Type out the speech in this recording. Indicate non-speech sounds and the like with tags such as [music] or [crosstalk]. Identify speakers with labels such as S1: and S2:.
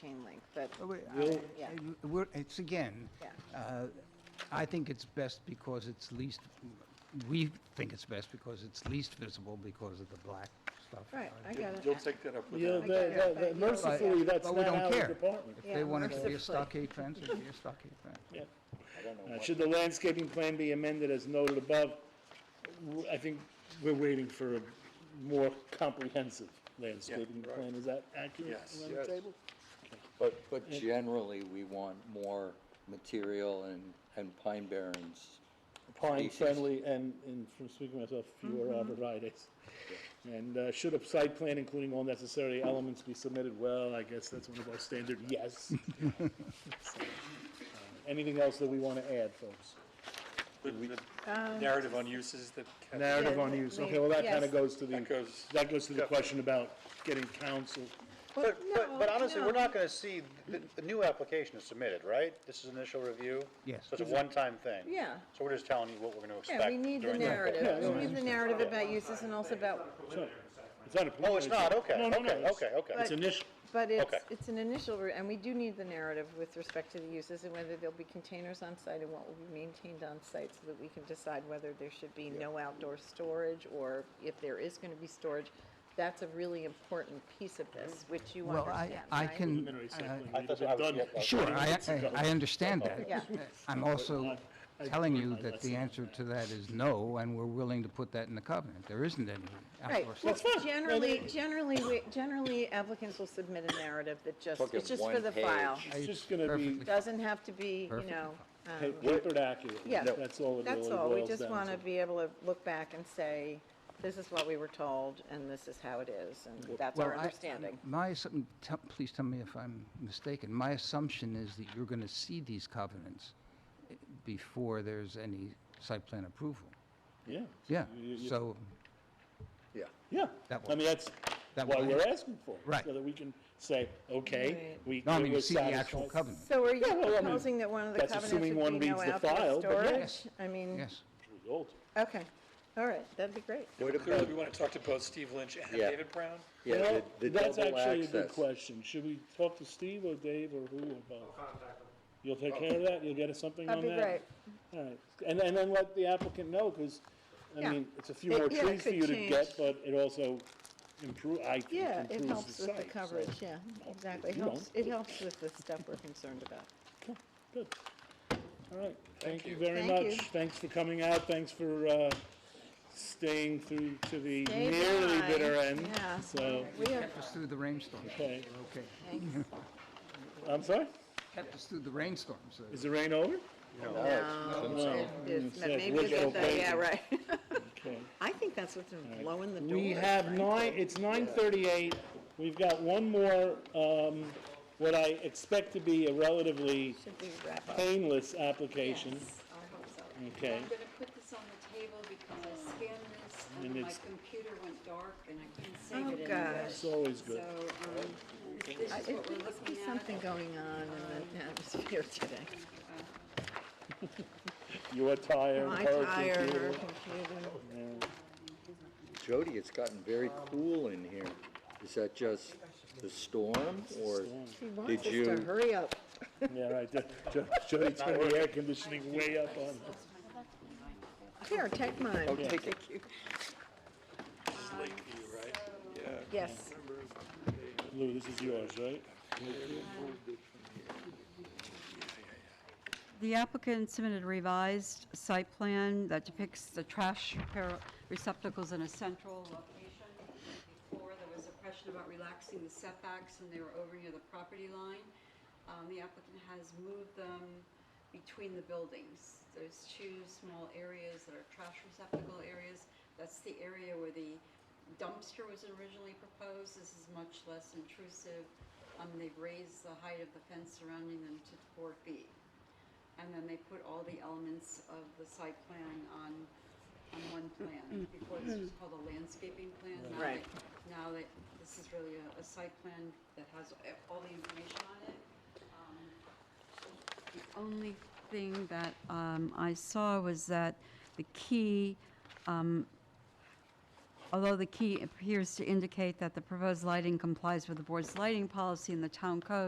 S1: chain link, but,
S2: Oh, wait, I-
S3: We'll-
S1: Yeah.
S2: I- We're, it's again,
S1: Yeah.
S2: uh, I think it's best because it's least, we think it's best because it's least visible because of the black stuff.
S1: right,
S2: Uh,
S1: I get it.
S4: You'll take that up with
S3: Yeah,
S4: them.
S1: get
S3: that-
S1: it,
S3: that-
S1: but-
S3: mercifully,
S2: But-
S3: that's
S2: but we
S3: not
S2: don't
S3: our
S2: care.
S3: department.
S2: If
S1: Yeah,
S2: they want it to be
S1: mercifully.
S2: a stockade fence, it'd be a stockade fence.
S1: [laughs]
S3: Yeah.
S4: I don't know
S3: Uh,
S4: what-
S3: Should the landscaping plan be amended as noted above? W- I think we're waiting for a more comprehensive landscaping
S4: right.
S3: plan. Is that accurate
S4: Yes.
S3: around the
S4: Yes.
S3: table?
S5: But, but generally, we want more material and, and pine barrens.
S3: Pine
S5: Species.
S3: friendly and, and from speaking for myself, fewer arborvitaes. And uh, should a site plan including all necessary elements be submitted? Well, I guess that's one of our standard yes. So, uh, Anything else that we want to add, folks?
S4: the- the Narrative on uses that. Kathy-
S3: Narrative
S1: Yeah,
S3: on
S1: the-
S3: use,
S1: the-
S3: okay, well, that kind
S1: yes.
S3: of goes to the,
S4: That goes-
S3: that goes to the question about getting counsel.
S6: But, but, but
S1: no,
S6: honestly, we're
S1: no.
S6: not gonna see, the, the new application is submitted, right? This is initial review?
S2: Yes.
S6: So it's a one-time thing?
S1: Yeah.
S6: So we're just telling you what we're gonna expect
S1: Yeah, we need the
S6: during that.
S1: narrative, we need the narrative about uses and also about,
S3: It's not a
S6: Oh, it's not, okay,
S3: No, no, no,
S6: okay,
S3: it's-
S6: okay, okay.
S3: It's initial,
S1: but it's,
S6: Okay.
S1: it's an initial, re- and we do need the narrative with respect to the uses and whether there'll be containers on site and what will be maintained on site so that we can decide whether there should be no outdoor storage or if there is gonna be storage. That's a really important piece of this, which you
S2: Well, I,
S1: understand,
S2: I
S1: right?
S2: can,
S3: preliminary site
S2: uh,
S3: plan,
S6: I
S3: we've
S6: thought
S3: been
S6: I was-
S3: done
S6: yeah,
S3: with.
S2: sure, I, I- I understand
S1: Yeah.
S2: that. I'm also
S3: I-
S2: telling you
S3: I-
S2: that the answer to that is no, and we're willing to put that in the covenant. There isn't any
S1: Right,
S2: outdoor
S1: well,
S2: storage.
S1: generally, generally, we- generally applicants will submit a narrative that just,
S5: Look
S1: it's
S5: at
S1: just for
S5: one
S1: the
S5: page.
S1: file.
S3: It's just gonna be
S2: Perfectly.
S1: Doesn't have to be, you
S2: Perfect.
S1: know, um,
S3: pa- papered accurately,
S1: Yeah.
S3: that's all it really
S1: that's
S3: boils down
S1: all, we just
S3: to.
S1: want to be able to look back and say, this is what we were told, and this is how it is, and that's
S2: Well,
S1: our
S2: I-
S1: understanding.
S2: My, assum- tell- please tell me if I'm mistaken. My assumption is that you're going to see these covenants eh, before there's any site plan approval.
S3: Yeah.
S2: Yeah,
S3: You- you- you-
S2: so,
S5: Yeah.
S3: Yeah,
S2: That
S3: I mean, that's
S2: that
S3: why
S2: one.
S3: we're asking for it.
S2: Right.
S3: So that we can say, okay,
S1: Right.
S3: we.
S2: no, I mean,
S3: we're
S2: you see the actual
S3: satisfied.
S2: covenant,
S1: So are you
S3: well, I mean,
S1: proposing that one of the
S3: that's
S1: covenants
S3: assuming one
S1: would be no
S3: reads the
S1: outdoor
S3: file, but
S1: storage?
S2: yes.
S1: I mean,
S2: yes.
S3: Result.
S1: okay, all right, that'd be great.
S5: What
S4: Clearly,
S5: about,
S4: we want to talk to both Steve Lynch and
S5: Yeah.
S4: David Brown.
S5: yeah,
S3: Well,
S5: the, the
S3: That's
S5: double
S3: actually a good
S5: access.
S3: question. Should we talk to Steve or Dave or who or both? You'll
S5: Oh.
S3: take care of that? You'll get us something on
S1: That'd
S3: that?
S1: be great.
S3: All right, and, and then let the applicant know, because, I
S1: Yeah.
S3: mean, it's a few
S1: It-
S3: more
S1: yeah, it
S3: trees for
S1: could
S3: you to
S1: change.
S3: get, but it also improve, I think
S1: Yeah, it
S3: improves
S1: helps
S3: the
S1: with the
S3: site, so-
S1: coverage, yeah, exactly. It
S3: you don't.
S1: helps, it helps with the stuff we're concerned about.
S3: Okay, Good. All right, thank you very
S1: Thank
S3: much.
S1: you.
S3: Thanks for coming out, thanks for, uh, staying through to the
S1: Stay
S3: nearly
S1: by,
S3: bitter end.
S1: yeah.
S3: So,
S1: We have,
S2: Kept us through the rainstorm.
S3: okay,
S2: Okay.
S1: thanks.
S3: I'm sorry,
S2: Kept us through the rainstorm, so.
S3: is the rain over?
S1: No, it- it's-
S3: like
S1: Maybe it's,
S3: woodrow
S1: a thing, yeah,
S3: paper.
S1: right.
S3: Okay.
S1: [laughs] I think that's what's been blowing the doors.
S3: We have
S1: right?
S3: nine, it's nine thirty-eight, we've got one more, um, what I expect to be a relatively
S1: Should we wrap up?
S3: painless application,
S7: Yes, I hope so.
S3: Okay.
S7: I'm gonna put this on the table because I scanned this
S3: And
S7: and my
S3: it's-
S7: computer went dark and I couldn't
S1: Oh,
S7: save it anywhere.
S1: gosh.
S3: it's always
S7: So,
S3: good.
S7: um, this is
S1: I-
S7: what
S1: There
S7: we're
S1: must be
S7: looking at.
S1: something going on in the atmosphere [laughs] today.
S3: You are tired,
S1: My
S3: her
S1: tire, her
S3: computer.
S1: computer.
S5: Jody, it's gotten very cool in here. Is that just the storm or
S1: She wants
S5: did
S1: us to
S5: you?
S1: hurry up.
S3: Yeah, right, Jo- Jo- Jody turned the air conditioning way up on.
S1: Here, take mine. Thank you. Yes,
S3: Lou, this is yours, right?
S8: The applicant submitted a revised site plan that depicts the trash repair- receptacles in a central location. Before, there was a question about relaxing the setbacks, and they were over near the property line. Um, The applicant has moved them between the buildings. There's two small areas that are trash receptacle areas. That's the area where the dumpster was originally proposed. This is much less intrusive. Um, They've raised the height of the fence surrounding them to four feet. And then they put all the elements of the site plan on, on one plan. Before this was called a landscaping plan. Now
S1: Right.
S7: they- Now that, this is really a, a site plan that has a- all the information on it. Um,
S8: The only thing that um, I saw was that the key, um, although the key appears to indicate that the proposed lighting complies with the board's lighting policy and the town code,